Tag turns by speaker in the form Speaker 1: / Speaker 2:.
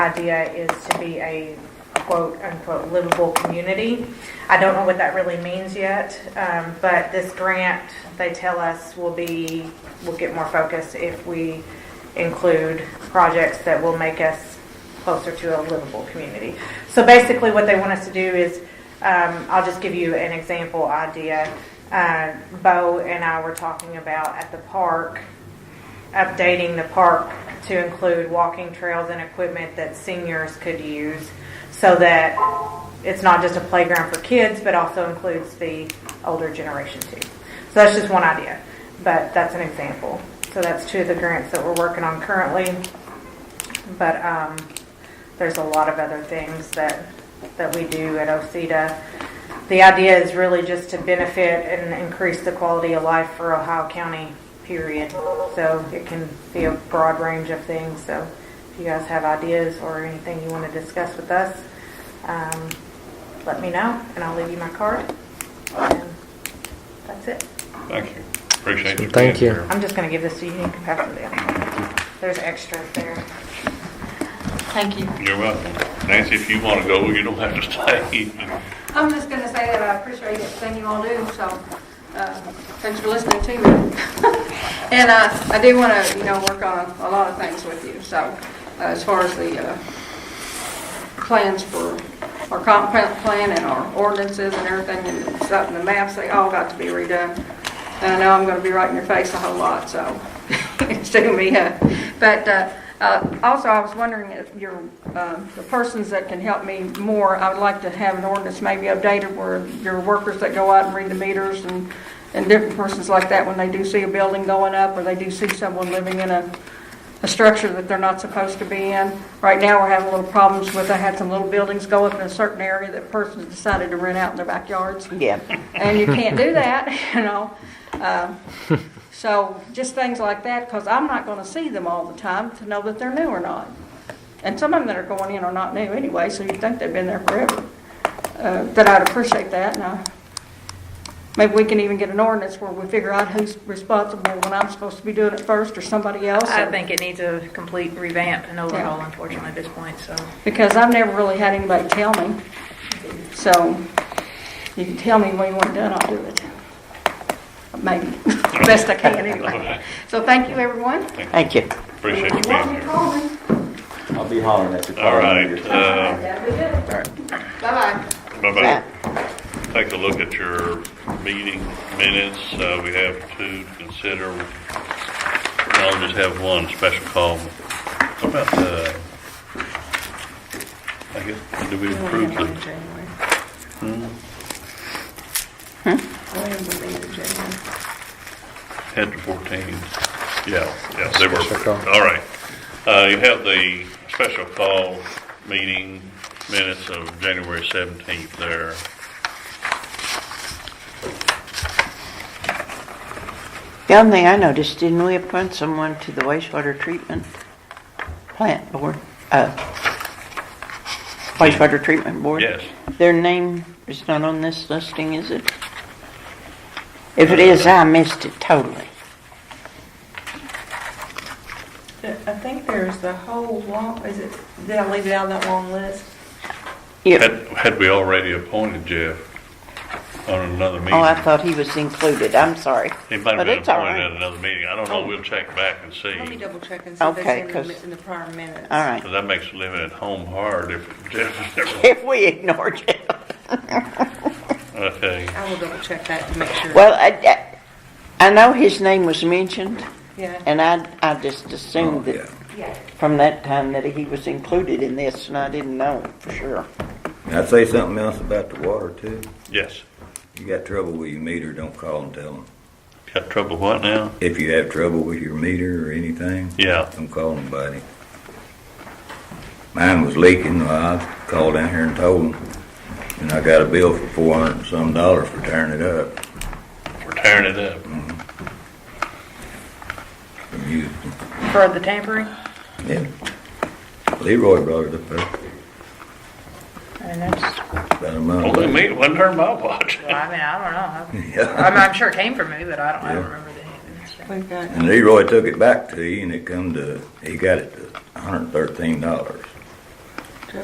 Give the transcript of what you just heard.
Speaker 1: idea is to be a quote unquote livable community. I don't know what that really means yet, um, but this grant, they tell us, will be, will get more focus if we include projects that will make us closer to a livable community. So basically, what they want us to do is, um, I'll just give you an example idea. Uh, Bo and I were talking about at the park, updating the park to include walking trails and equipment that seniors could use so that it's not just a playground for kids, but also includes the older generation too. So that's just one idea, but that's an example. So that's two of the grants that we're working on currently. But um, there's a lot of other things that, that we do at OCEDA. The idea is really just to benefit and increase the quality of life for Ohio County, period. So it can be a broad range of things. So if you guys have ideas or anything you want to discuss with us, um, let me know and I'll leave you my card. And That's it.
Speaker 2: Thank you. Appreciate you.
Speaker 3: Thank
Speaker 2: being
Speaker 3: you.
Speaker 2: here.
Speaker 1: I'm just going to give this to you. You can pass it down. There's extras there.
Speaker 4: Thank you.
Speaker 2: You're welcome. Nancy, if you want to go, you don't have to stay.
Speaker 4: I'm just going to say that I appreciate everything you all do, so uh, thanks for listening to me. And uh, I do want to, you know, work on a lot of things with you, so uh, as far as the uh, plans for our comp plan plan and our ordinances and everything and stuff and the maps, they all got to be redone. And I know I'm going to be right in your face a whole lot, so it's taking me, uh, but uh, uh, also I was wondering if your, um, the persons that can help me more, I would like to have an ordinance maybe updated where your workers that go out and read the meters and, and different persons like that, when they do see a building going up or they do see someone living in a, a structure that they're not supposed to be in. Right now, we're having little problems with, I had some little buildings go up in a certain area that persons decided to rent out in their backyards. Yeah. And you can't do that, you know? Um, So just things like that, because I'm not going to see them all the time to know that they're new or not. And some of them that are going in are not new anyway, so you'd think they've been there forever. Uh, That I'd appreciate that, and I Maybe we can even get an ordinance where we figure out who's responsible when I'm supposed to be doing it first or somebody else.
Speaker 5: I
Speaker 4: or-
Speaker 5: think it needs a complete revamp and overhaul, unfortunately, at this point, so.
Speaker 4: Because I've never really had anybody tell me. So you can tell me when you want it done, I'll do it. Maybe, best I can anyway. So thank you, everyone.
Speaker 6: Thank you.
Speaker 2: Appreciate you being here.
Speaker 4: call me.
Speaker 7: I'll be hollering at you.
Speaker 2: All right, uh,
Speaker 4: Bye-bye.
Speaker 2: bye-bye. Take a look at your meeting minutes. Uh, we have two to consider. I'll just have one special call. What about, uh, I guess, did we approve the, Hmm? Head to 14. Yeah, yeah, they were,
Speaker 3: Special call.
Speaker 2: all right. Uh, You have the special call meeting minutes of January 17th there.
Speaker 6: The other thing I noticed, didn't we appoint someone to the wastewater treatment plant board? Uh, Wastewater treatment board?
Speaker 2: Yes.
Speaker 6: Their name is not on this listing, is it? If it is, I missed it totally.
Speaker 8: I think there's the whole long, is it, did I leave it out of that long list?
Speaker 6: Yeah,
Speaker 2: Had had we already appointed Jeff on another meeting?
Speaker 6: oh, I thought he was included, I'm sorry.
Speaker 2: He might have
Speaker 6: But
Speaker 2: been
Speaker 6: it's all
Speaker 2: appointed at
Speaker 6: right. Oh.
Speaker 2: another meeting. I don't know. We'll check back and
Speaker 8: Let me
Speaker 2: see.
Speaker 8: double check and see if
Speaker 6: Okay,
Speaker 8: it's in
Speaker 6: 'cause-
Speaker 8: the, in the prior minutes.
Speaker 6: All right.
Speaker 2: 'Cause That makes living at home hard if Jeff is ever,
Speaker 6: If we ignored you.
Speaker 2: okay.
Speaker 8: I will double check that to make sure.
Speaker 6: Well, I, I I know his name was mentioned,
Speaker 8: Yeah,
Speaker 6: and I, I just assumed that from that time that he was included in this, and I didn't know for sure.
Speaker 7: I'd say something else about the water too.
Speaker 2: Yes.
Speaker 7: You got trouble with your meter, don't call and tell them.
Speaker 2: Got trouble what now?
Speaker 7: If you have trouble with your meter or anything,
Speaker 2: Yeah.
Speaker 7: don't call nobody. Mine was leaking, well, I called down here and told them, and I got a bill for four hundred and some dollars for tearing it up
Speaker 2: We're tearing it up.
Speaker 7: from Houston.
Speaker 5: For the tampering?
Speaker 7: Yeah. Leroy brought it up there
Speaker 5: And that's,
Speaker 7: about a month.
Speaker 2: Only
Speaker 7: ago.
Speaker 2: me, it wasn't her my watch.
Speaker 5: I mean, I don't know.
Speaker 7: Yeah.
Speaker 5: I'm, I'm sure it came from me, but I don't, I don't
Speaker 7: Yeah.
Speaker 5: remember the name.
Speaker 8: we've got,
Speaker 7: And Leroy took it back to you, and it come to, he got it to hundred and thirteen dollars.